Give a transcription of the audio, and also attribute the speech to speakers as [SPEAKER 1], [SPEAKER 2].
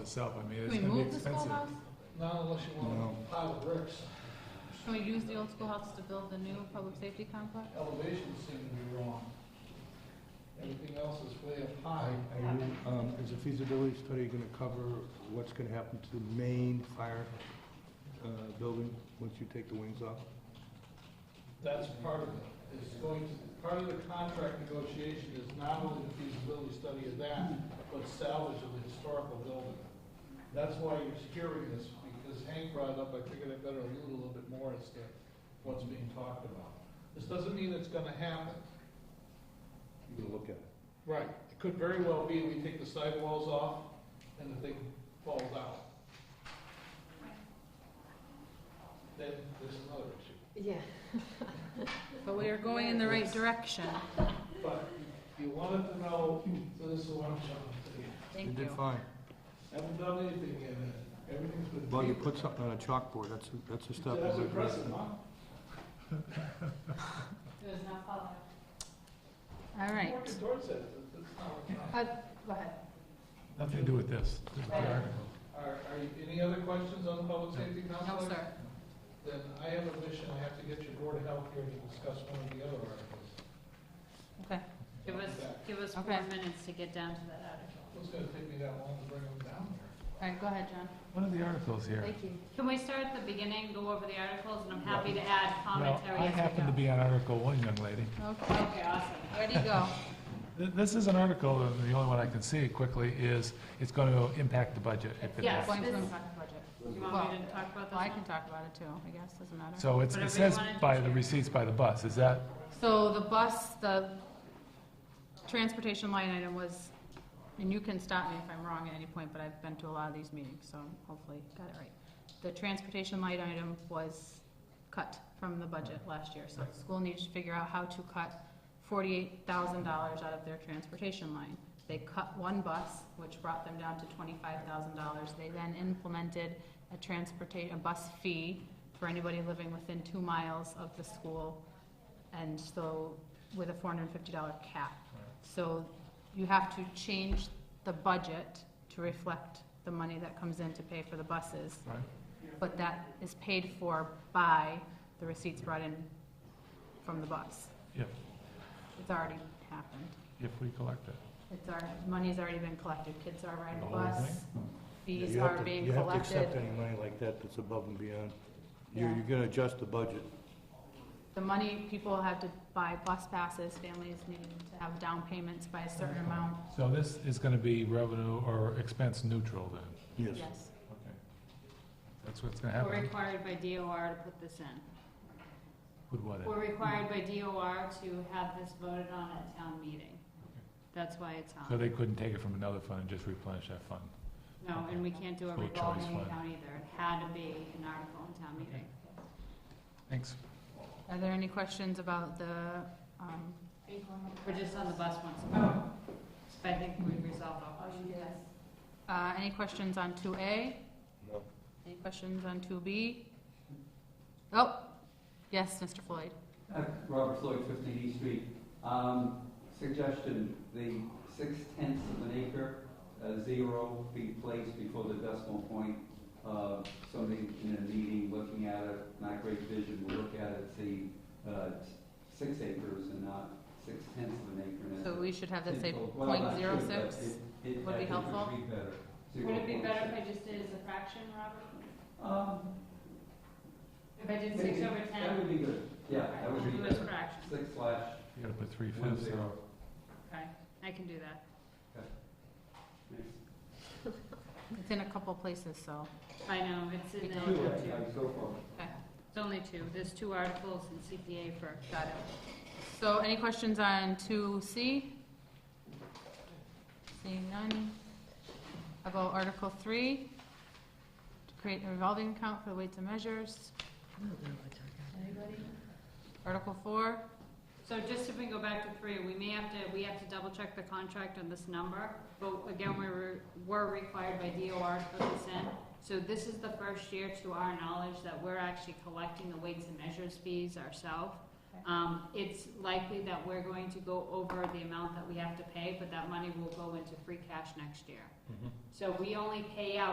[SPEAKER 1] itself, I mean,
[SPEAKER 2] Can
[SPEAKER 1] it's
[SPEAKER 2] we
[SPEAKER 1] gonna be
[SPEAKER 2] move the
[SPEAKER 1] expensive.
[SPEAKER 2] schoolhouse?
[SPEAKER 3] Not unless you
[SPEAKER 1] No.
[SPEAKER 3] want to pile of bricks.
[SPEAKER 2] Can we use the old schoolhouse to build the new public safety complex?
[SPEAKER 3] Elevations seem to be wrong. Everything else is way up
[SPEAKER 4] Are
[SPEAKER 3] high.
[SPEAKER 4] are you, um, is a feasibility study gonna cover what's gonna happen to the main fire, uh, building once you take the wings off?
[SPEAKER 3] That's part of it. It's going to, part of the contract negotiation is not only the feasibility study of that, but salvage of the historical building. That's why you're hearing this, because Hank brought it up, I figured I better allude a little bit more as to what's being talked about. This doesn't mean it's gonna happen.
[SPEAKER 4] You can look at it.
[SPEAKER 3] Right. It could very well be we take the sidewalls off and the thing falls out. Then there's another issue.
[SPEAKER 5] Yeah.
[SPEAKER 2] But we are going in the right direction.
[SPEAKER 3] But you wanted to know, so this is what I'm showing to you.
[SPEAKER 2] Thank
[SPEAKER 4] You
[SPEAKER 2] you.
[SPEAKER 4] did fine.
[SPEAKER 3] Haven't done anything yet. Everything's been.
[SPEAKER 4] Well, you put something on a chalkboard, that's, that's a step.
[SPEAKER 3] That's impressive, huh?
[SPEAKER 2] All right.
[SPEAKER 3] Working towards that. That's- that's not enough.
[SPEAKER 5] Go ahead.
[SPEAKER 1] Nothing to do with this, just the article.
[SPEAKER 3] Are, are you, any other questions on the public safety
[SPEAKER 2] No,
[SPEAKER 3] complex?
[SPEAKER 2] sir.
[SPEAKER 3] Then I have a mission, I have to get your board of health here to discuss one of the other articles.
[SPEAKER 2] Okay.
[SPEAKER 6] Give us, give us four
[SPEAKER 2] Okay.
[SPEAKER 6] minutes to get down to that article.
[SPEAKER 3] It's gonna take me that long to bring them down here.
[SPEAKER 2] All right, go ahead, John.
[SPEAKER 1] One of the articles here.
[SPEAKER 5] Thank you.
[SPEAKER 6] Can we start at the beginning, go over the articles, and I'm happy to add
[SPEAKER 1] Well,
[SPEAKER 6] commentary
[SPEAKER 1] I
[SPEAKER 6] as we
[SPEAKER 1] happen to
[SPEAKER 6] go.
[SPEAKER 1] be on Article One, young lady.
[SPEAKER 2] Okay,
[SPEAKER 6] Okay, awesome.
[SPEAKER 2] ready, go.
[SPEAKER 1] Th- This is an article, and the only one I can see quickly is, it's gonna impact the budget if it
[SPEAKER 6] Yes.
[SPEAKER 1] is.
[SPEAKER 2] Going to impact the budget.
[SPEAKER 6] Do you want me to talk about this
[SPEAKER 2] Well, I can
[SPEAKER 6] one?
[SPEAKER 2] talk about it too, I guess, doesn't matter.
[SPEAKER 1] So it's,
[SPEAKER 6] Whatever you
[SPEAKER 1] it says
[SPEAKER 6] wanna do,
[SPEAKER 1] by the
[SPEAKER 6] Chair.
[SPEAKER 1] receipts by the bus, is that,
[SPEAKER 2] So the bus, the transportation line item was, and you can stop me if I'm wrong at any point, but I've been to a lot of these meetings, so hopefully got it right. The transportation line item was cut from the budget last year, so the school needs to figure out how to cut forty-eight thousand dollars out of their transportation line. They cut one bus, which brought them down to twenty-five thousand dollars. They then implemented a transportation, a bus fee for anybody living within two miles of the school, and so with a four hundred and fifty dollar cap. So you have to change the budget to reflect the money that comes in to pay for the buses.
[SPEAKER 1] right?
[SPEAKER 2] But that is paid for by the receipts brought in from the bus.
[SPEAKER 1] If,
[SPEAKER 2] It's already happened.
[SPEAKER 1] if we collect it.
[SPEAKER 2] It's our, money's already been collected. Kids are riding
[SPEAKER 1] The
[SPEAKER 2] the
[SPEAKER 1] whole
[SPEAKER 2] bus. Fees
[SPEAKER 4] You have
[SPEAKER 2] are
[SPEAKER 4] to-
[SPEAKER 2] being
[SPEAKER 4] You have to accept
[SPEAKER 2] collected.
[SPEAKER 4] any money like that that's above and beyond. You're,
[SPEAKER 2] Yeah.
[SPEAKER 4] you're gonna adjust the budget.
[SPEAKER 2] The money, people have to buy bus passes, families need to have down payments by a certain amount.
[SPEAKER 1] So this is gonna be revenue or expense neutral then?
[SPEAKER 4] Yes.
[SPEAKER 2] Yes.
[SPEAKER 1] Okay. That's what's gonna
[SPEAKER 6] We're
[SPEAKER 1] happen.
[SPEAKER 6] required by DOR to put this in.
[SPEAKER 1] Would what?
[SPEAKER 6] We're required by DOR to have this voted on at town meeting. That's why it's
[SPEAKER 1] So
[SPEAKER 6] on.
[SPEAKER 1] they couldn't take it from another fund and just replenish that fund?
[SPEAKER 6] No, and we can't do a
[SPEAKER 1] School choice
[SPEAKER 6] revolving
[SPEAKER 1] fund.
[SPEAKER 6] account either. It had to be an article in town meeting.
[SPEAKER 1] Thanks.
[SPEAKER 2] Are there any questions about the, um,
[SPEAKER 6] We're just on the bus once
[SPEAKER 2] Oh.
[SPEAKER 6] more. But I think we resolved all questions.
[SPEAKER 2] uh, any questions on two A?
[SPEAKER 4] No.
[SPEAKER 2] Any questions on two B? Oh, yes, Mr. Floyd.
[SPEAKER 7] Uh, Robert Floyd, 15 East Street. Um, Suggestion, the six tenths of an acre, uh, zero be placed before the decimal point. Uh, Somebody in a meeting looking at it, not great vision, will look at it, see uh, six acres and not six tenths of an acre. And
[SPEAKER 2] So
[SPEAKER 7] it's-
[SPEAKER 2] we should have that say
[SPEAKER 7] Well,
[SPEAKER 2] point
[SPEAKER 7] not
[SPEAKER 2] zero
[SPEAKER 7] sure, but
[SPEAKER 2] six?
[SPEAKER 7] it- it-
[SPEAKER 2] would
[SPEAKER 7] I
[SPEAKER 2] be
[SPEAKER 7] think it
[SPEAKER 2] helpful.
[SPEAKER 7] be better.
[SPEAKER 6] Would it be
[SPEAKER 7] 0.6.
[SPEAKER 6] better if I just did as a fraction, Robert?
[SPEAKER 7] Um,
[SPEAKER 6] If I did six
[SPEAKER 7] maybe.
[SPEAKER 6] over
[SPEAKER 7] That would
[SPEAKER 6] ten?
[SPEAKER 7] be good, yeah, that would be
[SPEAKER 6] Do it as
[SPEAKER 7] better.
[SPEAKER 6] fractions.
[SPEAKER 7] Six slash
[SPEAKER 1] You gotta put three
[SPEAKER 7] one
[SPEAKER 1] fifths there.
[SPEAKER 7] zero.
[SPEAKER 6] Okay, I can do that.
[SPEAKER 7] Thanks.
[SPEAKER 2] It's in a couple places, so,
[SPEAKER 6] I know, it's in
[SPEAKER 7] Two,
[SPEAKER 6] the,
[SPEAKER 7] yeah, so far.
[SPEAKER 2] okay,
[SPEAKER 6] it's only two, there's two articles in CPA for,
[SPEAKER 2] got it. So any questions on two C? Seeing none. About Article three, to create a revolving account for the weights and measures. Article four,
[SPEAKER 6] so just if we go back to three, we may have to, we have to double check the contract on this number. But again, we were, were required by DOR to put this in. So this is the first year to our knowledge that we're actually collecting the weights and measures fees ourselves.
[SPEAKER 2] Okay.
[SPEAKER 6] Um, it's likely that we're going to go over the amount that we have to pay, but that money will go into free cash next year. So we only pay out